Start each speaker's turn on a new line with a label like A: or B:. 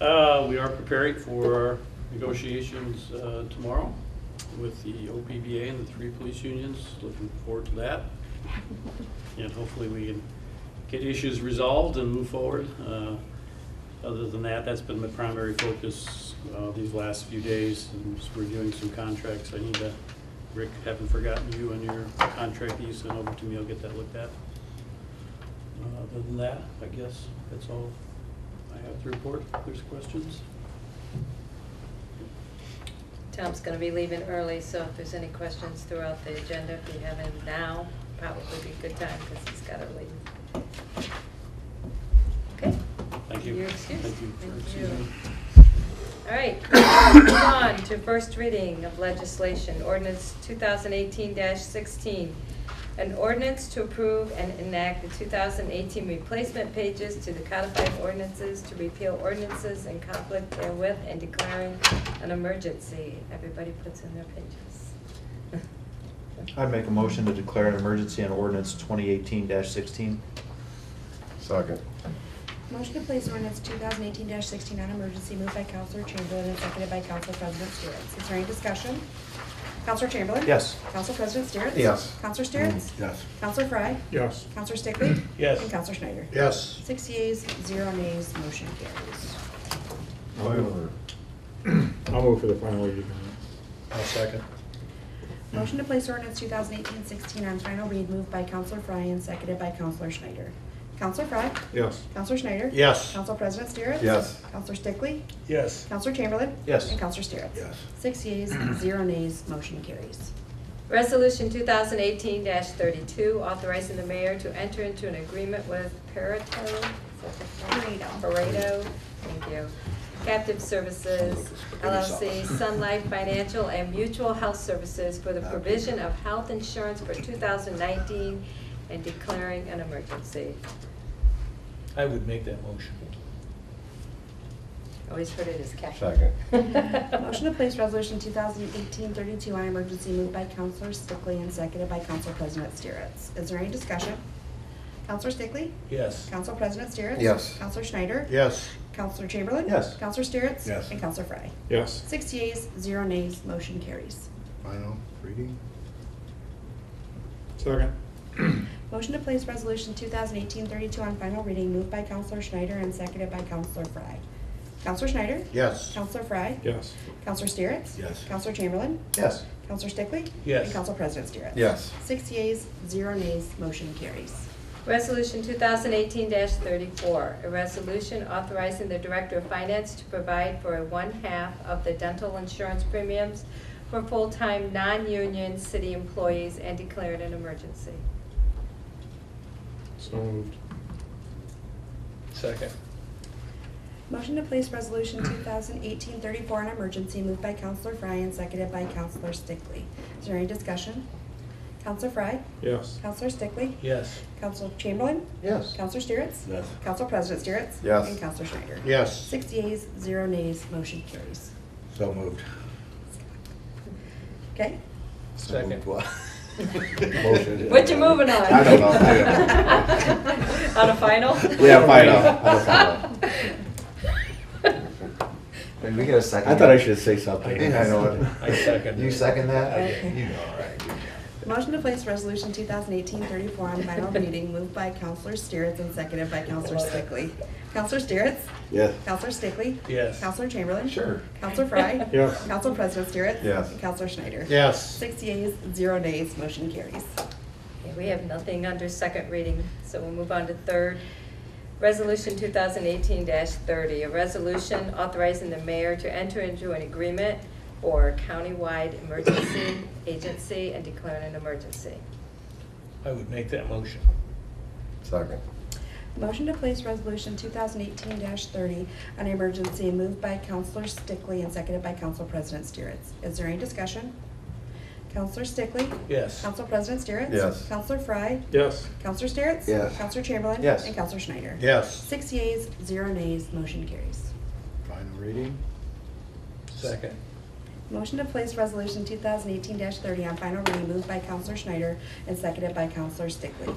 A: Uh, We are preparing for negotiations uh, tomorrow with the OPBA and the three police unions. Looking forward to that. And hopefully we can get issues resolved and move forward. Uh, Other than that, that's been my primary focus uh, these last few days, and just reviewing some contracts. I need to, Rick, haven't forgotten you and your contract that you sent over to me. I'll get that looked at. Uh, Other than that, I guess that's all I have to report. If there's questions?
B: Tom's gonna be leaving early, so if there's any questions throughout the agenda, if you have any now, probably be a good time, because he's gotta leave. Okay,
A: Thank you.
B: You're excused.
A: Thank you for
B: Thank
A: excusing
B: you.
A: me.
B: all right, moving on to first reading of legislation, ordinance two thousand eighteen sixteen. An ordinance to approve and enact the two thousand eighteen replacement pages to the codified ordinances to repeal ordinances in conflict therewith and declaring an emergency. Everybody puts in their pages.
C: I make a motion to declare an emergency on ordinance twenty eighteen sixteen.
D: Second.
E: Motion to place ordinance two thousand eighteen sixteen on emergency moved by Counselor Chamberlain and seconded by Council President Steeritz. Is there any discussion? Counselor Chamberlain?
C: Yes.
E: Council President Steeritz?
D: Yes. Mm-hmm.
E: Counselor Steeritz?
D: Yes.
E: Counselor Fry?
D: Yes.
E: Counselor Stickley?
A: Yes.
E: And Counselor Schneider?
D: Yes.
E: Six yeas, zero nays, motion carries.
F: I'll move for the final reading.
D: I'll second.
E: Motion to place ordinance 2018-16 on final read moved by Counselor Fry and seconded by Counselor Schneider. Counselor Fry?
F: Yes.
E: Counselor Schneider?
D: Yes.
E: Council President Steeritz?
D: Yes.
E: Counselor Stickley?
F: Yes.
E: Counselor Chamberlain?
C: Yes.
E: And Counselor Steeritz?
D: Yes.
E: Six yeas, zero nays, motion carries.
B: Resolution 2018-32, authorizing the mayor to enter into an agreement with Pareto,
E: Pareto.
B: Pareto, thank you, Captive Services LLC, Sun Life Financial, and Mutual Health Services for the provision of health insurance for 2019 and declaring an emergency.
C: I would make that motion.
B: Always heard it as captive.
D: Second.
E: Motion to place resolution 2018-32 on emergency moved by Counselor Stickley and seconded by Council President Steeritz. Is there any discussion? Counselor Stickley?
C: Yes.
E: Council President Steeritz?
D: Yes.
E: Counselor Schneider?
D: Yes.
E: Counselor Chamberlain?
C: Yes.
E: Counselor Steeritz?
D: Yes.
E: And Counselor Fry.
F: Yes.
E: Six yeas, zero nays, motion carries.
D: Final reading?
F: Second.
E: Motion to place resolution 2018-32 on final reading moved by Counselor Schneider and seconded by Counselor Fry. Counselor Schneider?
D: Yes.
E: Counselor Fry?
F: Yes.
E: Counselor Steeritz?
D: Yes.
E: Counselor Chamberlain?
C: Yes.
E: Counselor Stickley?
C: Yes.
E: And Council President Steeritz?
D: Yes.
E: Six yeas, zero nays, motion carries.
B: Resolution 2018-34, a resolution authorizing the Director of Finance to provide for a one-half of the dental insurance premiums for full-time, non-union city employees and declared an emergency.
F: So moved.
C: Second.
E: Motion to place resolution 2018-34 on emergency moved by Counselor Fry and seconded by Counselor Stickley. Is there any discussion? Counselor Fry?
F: Yes.
E: Counselor Stickley?
C: Yes.
E: Counselor Chamberlain?
C: Yes.
E: Counselor Steeritz?
D: Yes.
E: Council President Steeritz?
D: Yes.
E: And Counselor Schneider?
D: Yes.
E: Six yeas, zero nays, motion carries.
D: So moved.
E: Okay?
C: Second.
D: Motion.
B: What you moving on?
D: I don't know. I
B: On a final?
D: Yeah, final, on a final.
C: Did we get a second?
D: I thought I should say something.
C: I know
D: it.
C: I second
D: You second that?
E: Okay.
D: You know, all right.
E: Motion to place resolution 2018-34 on final reading moved by Counselor Steeritz and seconded by Counselor Stickley. Counselor Steeritz?
D: Yes.
E: Counselor Stickley?
C: Yes.
E: Counselor Chamberlain?
D: Sure.
E: Counselor Fry?
F: Yes.
E: Council President Steeritz?
D: Yes.
E: And Counselor Schneider?
D: Yes.
E: Six yeas, zero nays, motion carries.
B: Okay, We have nothing under second reading, so we'll move on to third. Resolution 2018-30, a resolution authorizing the mayor to enter into an agreement for countywide emergency agency and declaring an emergency.
G: I would make that motion.
D: Second.
E: Motion to place resolution 2018-30 on emergency moved by Counselor Stickley and seconded by Council President Steeritz. Is there any discussion? Counselor Stickley?
G: Yes.
E: Council President Steeritz?
D: Yes.
E: Counselor Fry?
F: Yes.
E: Counselor Steeritz?
D: Yes.
E: Counselor Chamberlain?
C: Yes.
E: And Counselor Schneider?
D: Yes.
E: Six yeas, zero nays, motion carries.
D: Final reading?
G: Second.
E: Motion to place resolution 2018-30 on final reading moved by Counselor Schneider and seconded by Counselor Stickley.